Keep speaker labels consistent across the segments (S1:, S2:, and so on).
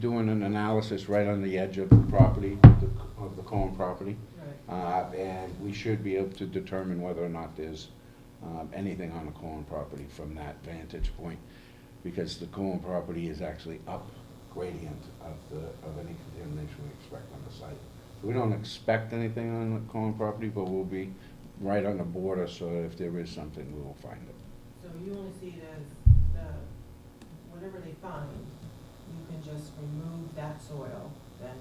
S1: doing an analysis right on the edge of the property, the- of the Cohen property. Uh, And we should be able to determine whether or not there's um, anything on the Cohen property from that vantage point, because the Cohen property is actually up gradient of the, of any contamination we expect on the site. We don't expect anything on the Cohen property, but we'll be right on the border, so that if there is something, we will find it.
S2: So you only see it as the, whatever they find, you can just remove that soil then,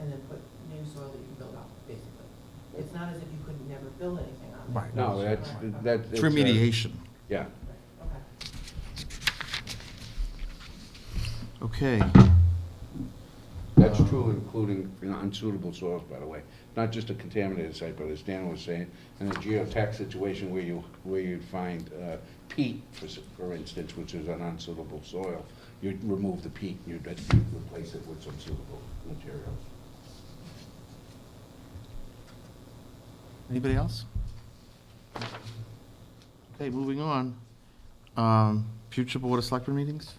S2: and then put new soil that you can build up, basically. It's not as if you could never build anything on it.
S3: Right.
S1: No, that's, that's. uh,
S3: It's remediation.
S1: Yeah.
S2: Right, Okay.
S3: Okay.
S1: That's
S3: Uh,
S1: true, including you know, unsuitable soils, by the way. Not just a contaminated site, but as Dan was saying, in a geotech situation where you, where you'd find uh, peat, for s- for instance, which is an unsuitable soil, you'd remove the peat, you'd uh, replace it with some suitable materials.
S3: Anybody else? Okay, moving on. Um, Future Board of Selectmen meetings?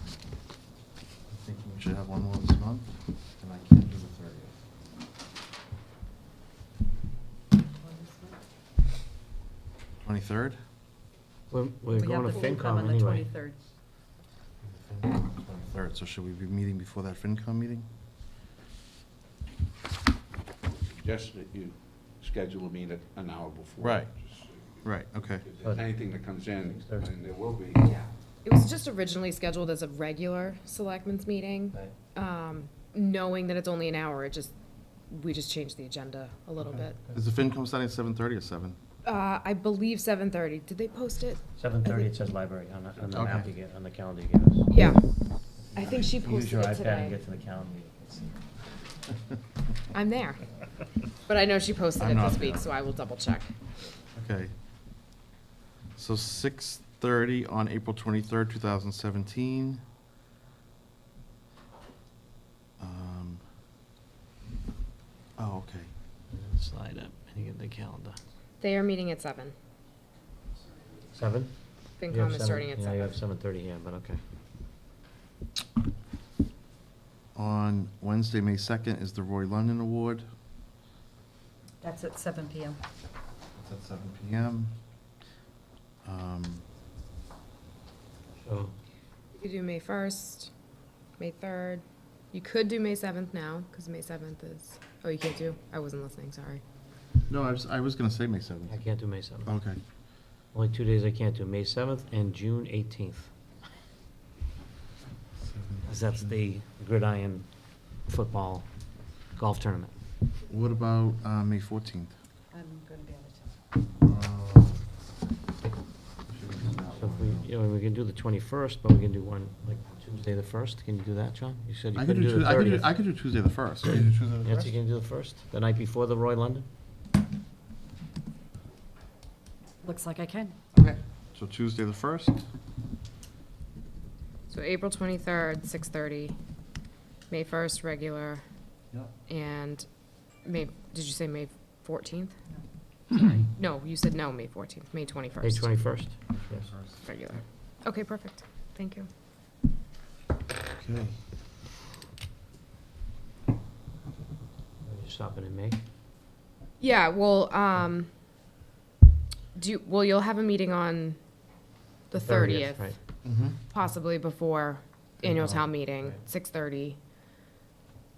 S3: I'm thinking we should have one more this month, and I can't do the thirtieth.
S2: Well, this one-
S3: Twenty-third?
S4: We're, we're
S5: We
S4: going
S5: have
S4: to
S5: the FinCom
S4: FinCom
S5: on the
S4: anyway.
S5: 23rd.
S3: Twenty-third, so should we be meeting before that FinCom meeting?
S1: Just that you schedule a meeting an hour before.
S3: Right.
S1: Just so you-
S3: Right, okay.
S1: if there's Anything that comes in, and there will be,
S2: Yeah.
S5: It was just originally scheduled as a regular selectmen's meeting. Um, Knowing that it's only an hour, it just, we just changed the agenda a little bit.
S3: Is the FinCom starting at seven-thirty or seven?
S5: Uh, I believe 7:30. Did they post it?
S4: Seven thirty, it says library on the, on the map
S3: Okay.
S4: you get, on the calendar you get us.
S5: Yeah. I think she
S4: Use
S5: posted
S4: your
S5: it
S4: iPad and
S5: today.
S4: get to the calendar.
S5: I'm there. But I know she posted
S3: I'm
S5: it
S3: not
S5: this week,
S3: there.
S5: so I will double check.
S3: Okay. So six thirty on April twenty-third, two thousand seventeen. Um. Oh, okay.
S4: Slide up and you get the calendar.
S5: They are meeting at seven.
S4: Seven? You have
S5: FinCom is
S4: seven-
S5: starting at
S4: Yeah, you
S5: seven.
S4: have seven thirty here, but okay.
S3: On Wednesday, May second is the Roy London Award.
S6: That's at seven PM.
S3: It's at seven PM. Um,
S4: So,
S5: You could do May 1st, May 3rd. You could do May 7th now, because May 7th is, oh, you can't do? I wasn't listening, sorry.
S3: No, I was, I was gonna say May seventh.
S4: I can't do May seventh.
S3: Okay.
S4: Only two days I can't do, May seventh and June eighteenth. Cause that's the gridiron football golf tournament.
S3: What about, uh, May fourteenth?
S6: I'm gonna be out of
S4: So if we, you know, we can do the twenty-first, but we can do one, like Tuesday the first, can you do that, John? You said you
S3: I
S4: couldn't
S3: could
S4: do
S3: do,
S4: the
S3: Tu- I could do,
S4: thirtieth.
S3: I could do Tuesday the first.
S4: Yes, you can do the first, the night before the Roy London?
S6: town. Looks like I can.
S3: Okay. So Tuesday the first?
S5: So April twenty-third, six thirty, May first, regular,
S3: Yep.
S5: and May, did you say May fourteenth?
S6: No.
S5: No, you said no, May fourteenth, May
S4: May
S5: twenty-first,
S4: twenty-first?
S5: regular. Okay, perfect, thank you.
S3: Okay.
S4: You're stopping in May?
S5: Yeah, well, um, do, you- well, you'll have a meeting on the thirtieth,
S4: Right,
S3: Mm-hmm.
S5: possibly before annual
S4: Right.
S5: town meeting,
S4: Right.
S5: six thirty.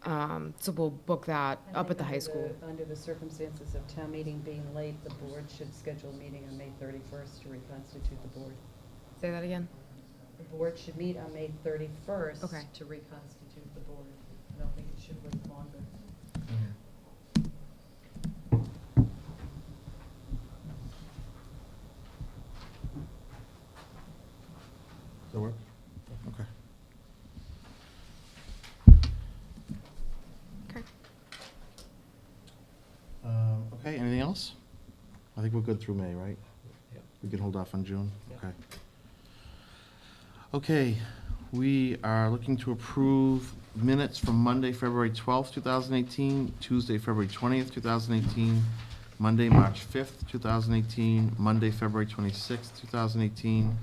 S5: Um, so we'll book that up at the high school.
S6: Under the circumstances of town meeting being late, the board should schedule a meeting on May thirty-first to reconstitute the board.
S5: Say that again?
S6: The board should meet on May thirty-first.
S5: Okay.
S6: To reconstitute the board. I don't think it should wait longer.
S3: That work? Okay.
S5: Okay.
S3: Um, Okay, anything else? I think we're good through May, right?
S4: Yep.
S3: We can hold off on June?
S4: Yep.
S3: Okay. Okay, we are looking to approve minutes from Monday, February 12th, 2018, Tuesday, February 20th, 2018, Monday, March fifth, two thousand eighteen, Monday, February twenty-sixth, two thousand eighteen,